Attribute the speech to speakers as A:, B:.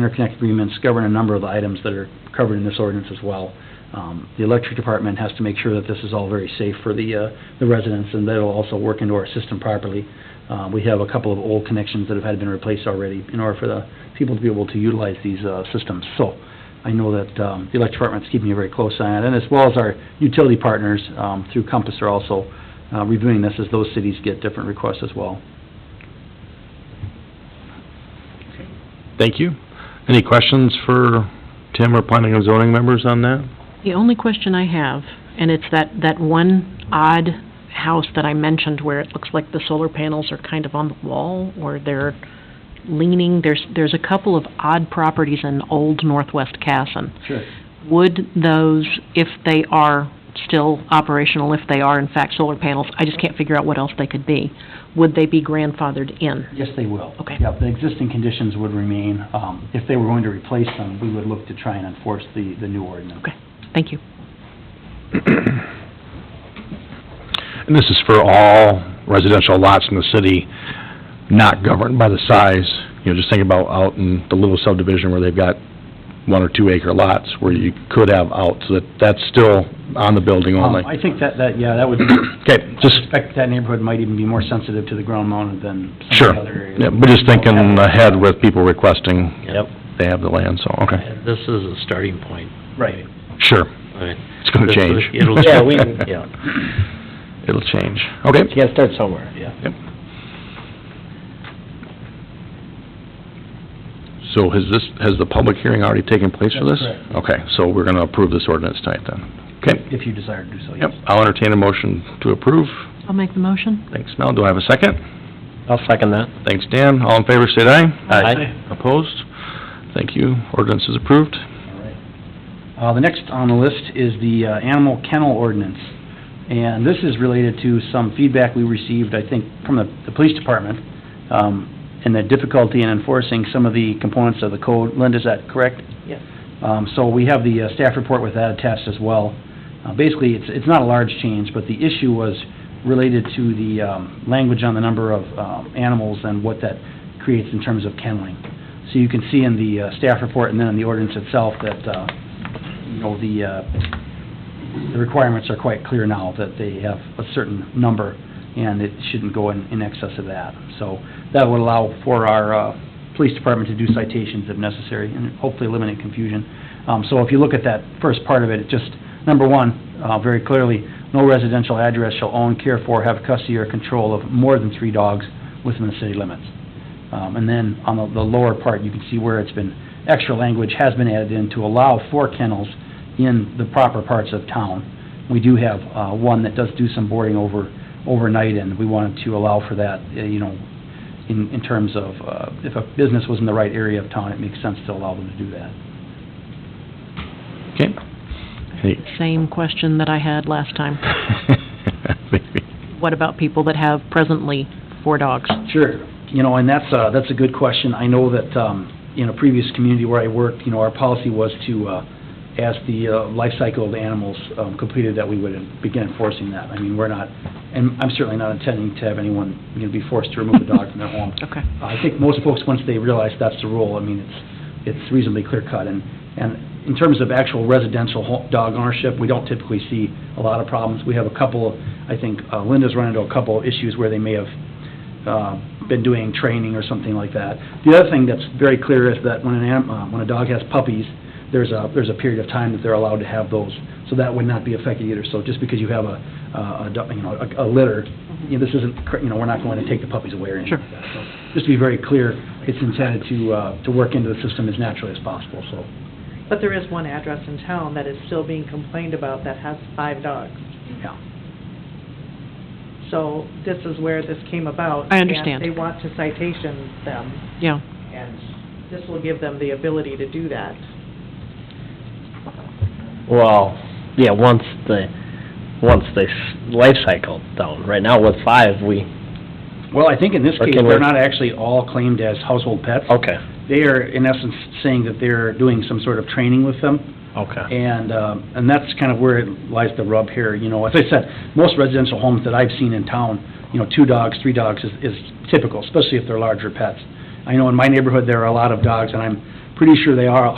A: interconnect agreements govern a number of the items that are covered in this ordinance as well. Um, The electric department has to make sure that this is all very safe for the uh, the residents, and that'll also work into our system properly. Uh, We have a couple of old connections that have had been replaced already in order for the people to be able to utilize these uh, systems. So I know that um, the electric department's keeping a very close eye on it, and as well as our utility partners um, through Compass are also uh, reviewing this as those cities get different requests as well.
B: Thank you. Any questions for Tim or planning and zoning members on that?
C: The only question I have, and it's that, that one odd house that I mentioned where it looks like the solar panels are kind of on the wall, or they're leaning, there's, there's a couple of odd properties in old northwest Casson.
A: Sure.
C: Would those, if they are still operational, if they are in fact solar panels, I just can't figure out what else they could be, would they be grandfathered in?
A: Yes, they will.
C: Okay.
A: Yeah, the existing conditions would remain. Um, If they were going to replace them, we would look to try and enforce the, the new ordinance.
C: Okay, thank you.
B: And this is for all residential lots in the city, not governed by the size. You know, just think about out in the little subdivision where they've got one or two acre lots where you could have out, so that, that's still on the building
A: Um,
B: only.
A: I think that, that, yeah, that would,
B: Okay, just,
A: in fact, that neighborhood might even be more sensitive to the ground mounted than some
B: sure.
A: of the other areas.
B: Yeah, We're just thinking uh, ahead with people requesting
D: Yep,
B: they have the land, so, okay.
D: this is a starting point.
A: Right.
B: Sure,
D: I mean,
B: it's gonna
D: this is-
B: change.
D: It'll,
E: Yeah, we, yeah,
B: It'll change, okay.
E: you gotta start somewhere.
B: So has this, has the public hearing already taken place for this?
A: That's correct.
B: Okay, so we're gonna approve this ordinance tonight then. Okay,
A: If you desire to do so, yes.
B: yep, I'll entertain a motion to approve.
C: I'll make the motion.
B: Thanks, Mel, do I have a second?
E: I'll second that.
B: Thanks, Dan, all in favor, say aye.
E: Aye.
B: Opposed? Thank you, ordinance is approved.
A: All right. Uh, The next on the list is the uh, animal kennel ordinance. And this is related to some feedback we received, I think, from the the police department, um, and the difficulty in enforcing some of the components of the code. Linda, is that correct?
E: Yes.
A: Um, So we have the uh, staff report with that attached as well. Uh, Basically, it's it's not a large change, but the issue was related to the um, language on the number of um, animals and what that creates in terms of kenneling. So you can see in the uh, staff report and then in the ordinance itself that, uh, you know, the, uh, the requirements are quite clear now, that they have a certain number, and it shouldn't go in, in excess of that. So that would allow for our uh, police department to do citations if necessary, and hopefully eliminate confusion. Um, So if you look at that first part of it, it just, number one, uh, very clearly, no residential address shall own, care for, have custody or control of more than three dogs within the city limits. Um, And then on the the lower part, you can see where it's been, extra language has been added in to allow for kennels in the proper parts of town. We do have uh, one that does do some boarding over, overnight, and we wanted to allow for that, uh, you know, in, in terms of, uh, if a business was in the right area of town, it makes sense to allow them to do that.
B: Okay. Hey.
C: Same question that I had last time.
B: Maybe.
C: What about people that have presently four dogs?
A: Sure, you know, and that's, uh, that's a good question. I know that, um, in a previous community where I worked, you know, our policy was to, uh, as the uh, life cycle of the animals um, completed, that we would begin enforcing that. I mean, we're not, and I'm certainly not intending to have anyone, you know, be forced to remove a dog from their home.
C: Okay.
A: I think most folks, once they realize that's the rule, I mean, it's, it's reasonably clear-cut. And, and in terms of actual residential ho- dog ownership, we don't typically see a lot of problems. We have a couple, of- I think uh, Linda's run into a couple of issues where they may have uh, been doing training or something like that. The other thing that's very clear is that when an, anim- uh, when a dog has puppies, there's a, there's a period of time that they're allowed to have those, so that would not be affected either. So just because you have a, uh, a- a, do- you know, a a litter, you know, this isn't, cr- you know, we're not going to take the puppies away or anything like that. So Just to be very clear, it's intended to, uh, to work into the system as naturally as possible, so.
F: But there is one address in town that is still being complained about that has five dogs.
A: Yeah.
F: So this is where this came about.
C: I understand.
F: And they want to citation them,
C: Yeah.
F: and this will give them the ability to do that.
E: Well, yeah, once the, once the s- life cycle down, right now with five, we,
A: Well, I think in this
E: Or
A: case,
E: can
A: they're
E: we-
A: not actually all claimed as household pets.
E: okay,
A: They are, in essence, saying that they're doing some sort of training with them.
E: okay.
A: And, um, and that's kind of where it lies the rub here, you know, as I said, most residential homes that I've seen in town, you know, two dogs, three dogs is, is typical, especially if they're larger pets. I know in my neighborhood, there are a lot of dogs, and I'm, pretty sure they are